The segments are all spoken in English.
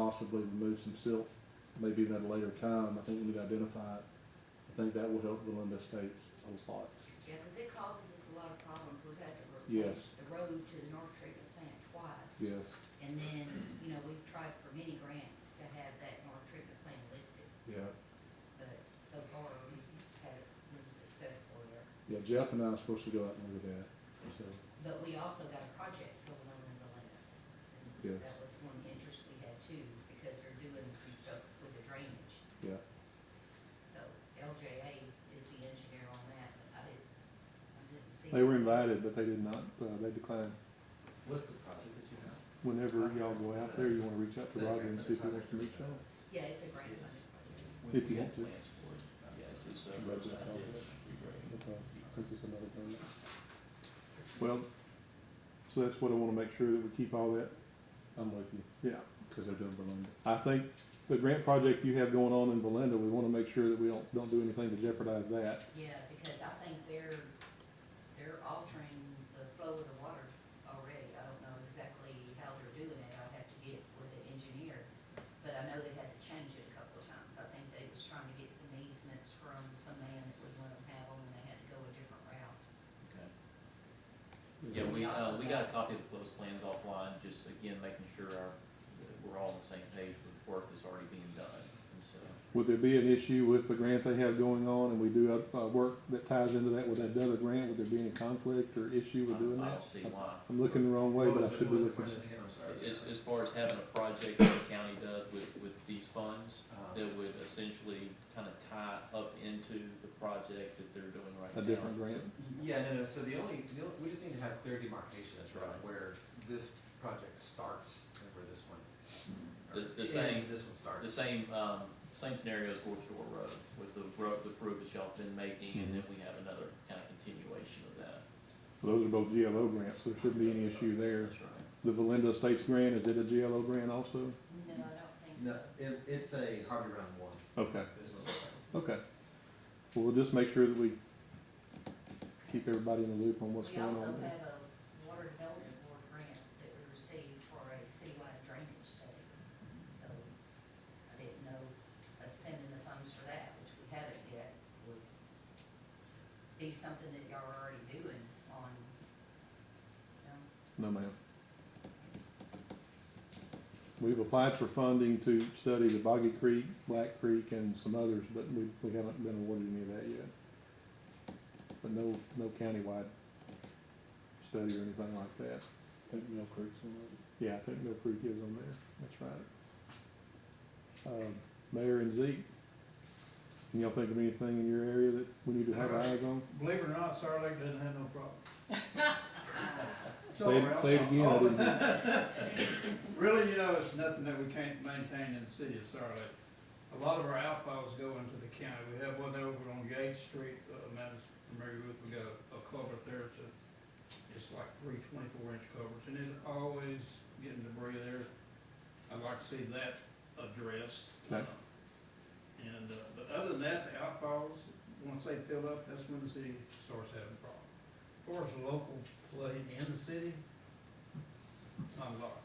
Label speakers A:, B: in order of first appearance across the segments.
A: possibly remove some silt, maybe even at a later time, I think we need to identify it. I think that will help Belinda Estates a lot.
B: Yeah, because it causes us a lot of problems. We've had to
A: Yes.
B: replace the road to the North Treatment Plant twice.
A: Yes,
B: And then, you know, we've tried for many grants to have that North Treatment Plant lifted,
A: yeah.
B: but so far we haven't been successful there.
A: Yeah, Jeff and I are supposed to go out and look at that, so,
B: But we also got a project going on in Galena.
A: Yeah.
B: That was one interest we had too, because they're doing some stuff with the drainage.
A: yeah.
B: So LJA is the engineer on that, but I didn't, I didn't see.
A: They were invited, but they did not, uh, they declined.
C: What's the project that you have?
A: Whenever y'all go out there, you wanna reach out to Roger and see if he wants to meet y'all.
B: Yeah, it's a grant funded project.
A: If you want to.
D: Plans for it. Yeah, it's just a
A: Right,
D: roadside
A: yeah.
D: ditch regrading.
A: Okay, since it's another permit. Well, so that's what I wanna make sure that we keep all that. I'm with you. Yeah. Cause they're doing Belinda. I think the grant project you have going on in Belinda, we wanna make sure that we don't, don't do anything to jeopardize that.
B: Yeah, because I think they're, they're altering the flow of the water already. I don't know exactly how they're doing it. I'll have to get with the engineer. But I know they had to change it a couple of times. I think they was trying to get some easements from some man that would let them have them, and they had to go a different route.
D: Okay. Yeah, we, uh, we got a copy of those plans offline, just again, making sure our, that we're all on the same page with work that's already being done, and so.
A: Would there be an issue with the grant they have going on and we do, uh, uh, work that ties into that with that other grant? Would there be any conflict or issue with doing
D: I-
A: that?
D: I don't see why.
A: I'm looking the wrong way,
C: What
A: but
C: was
A: I
C: the-
A: should be
C: what was the
A: looking.
C: question again? I'm sorry.
D: As, as far as having a project that the county does with, with these funds,
C: Uh-huh.
D: that would essentially kind of tie up into the project that they're doing right
A: A
D: now.
A: different grant?
C: Yeah, no, no, so the only, the only, we just need to have clear demarcation
D: That's
C: of
D: right.
C: where this project starts and where this one. or
D: The- the
C: ends,
D: same-
C: This one
D: The
C: starts.
D: same, um, same scenario as Gore Road, with the road, the improvements y'all been making,
A: Mm-hmm.
D: and then we have another kind of continuation of that.
A: Those are both GLO grants, so there shouldn't be any issue there.
D: That's right.
A: The Valinda Estates grant, is it a GLO grant also?
B: No, I don't think so.
C: No, it, it's a Harvey Round one,
A: Okay,
C: this one.
A: okay. Well, we'll just make sure that we keep everybody in the loop on what's
B: We
A: going
B: also
A: on. there.
B: have a water development board grant that we received for a citywide drainage study. So I didn't know us spending the funds for that, which we haven't yet, would be something that y'all are already doing on, you know,
A: No, ma'am. We've applied for funding to study the Boggy Creek, Black Creek, and some others, but we, we haven't been awarded any of that yet. But no, no countywide study or anything like that.
E: Think Mill Creek's one of them.
A: Yeah, I think Mill Creek is on there, that's right. Um, Mayor and Zeke, can y'all think of anything in your area that we need to have our eyes on?
F: Believe it or not, Star Lake doesn't have no problem.
A: Say it, say it again, I didn't,
F: Really, you know, it's nothing that we can't maintain in the city of Star Lake. A lot of our outfalls go into the county. We have one over on Yates Street, uh, Matt's familiar with, we got a culvert there, it's a, it's like three twenty-four inch culverts, and it's always getting debris there. I'd like to see that addressed.
A: Okay.
F: Uh, And, uh, but other than that, the outfalls, once they fill up, that's when the city starts having problems. As far as local play in the city, not a lot.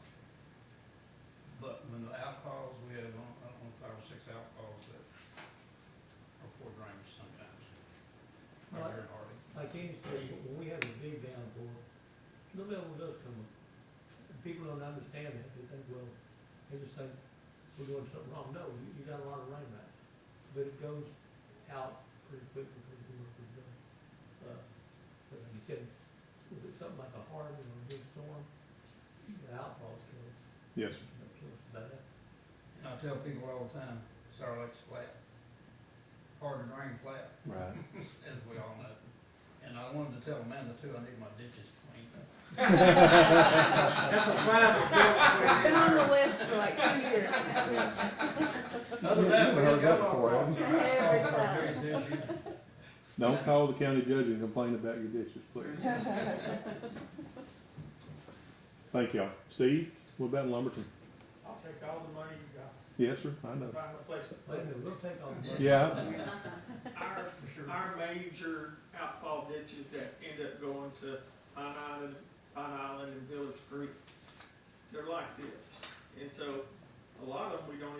F: But when the outfalls, we have, I don't I don't know, five or six outfalls that are poor drainage sometimes. Right here in Hardy.
G: like Amy said, when we have a big downpour, the level does come up. People don't understand that, they think, well, they just think we're doing something wrong, no, you, you got a lot of rain back. But it goes out pretty quickly, pretty quickly, pretty quickly. Uh, But like you said, if it's something like a hurricane or a big storm, the outfalls kill us,
A: yes,
G: kill us bad.
F: And I tell people all the time, Sour Lake's flat. Hard to drain flat,
A: right.
F: as we all know. And I wanted to tell Amanda too, I need my ditches cleaned.
C: That's a private joke.
H: Been on the list for like two years now.
F: Other than that, we
A: Never heard
F: have
A: that
F: got off
A: before,
F: our
A: have
H: Every
F: various issues.
A: Don't call the county judge and complain about your dishes, please. Thank y'all. Steve, what about in Lumberton?
F: I'll take all the money you got,
A: Yes, sir, I know.
F: find a place to
G: But anyway, we'll take all the money.
A: Yeah,
F: Our, our major outfall ditches that end up going to Pine Island, Pine Island and Village Creek, they're like this. And so a lot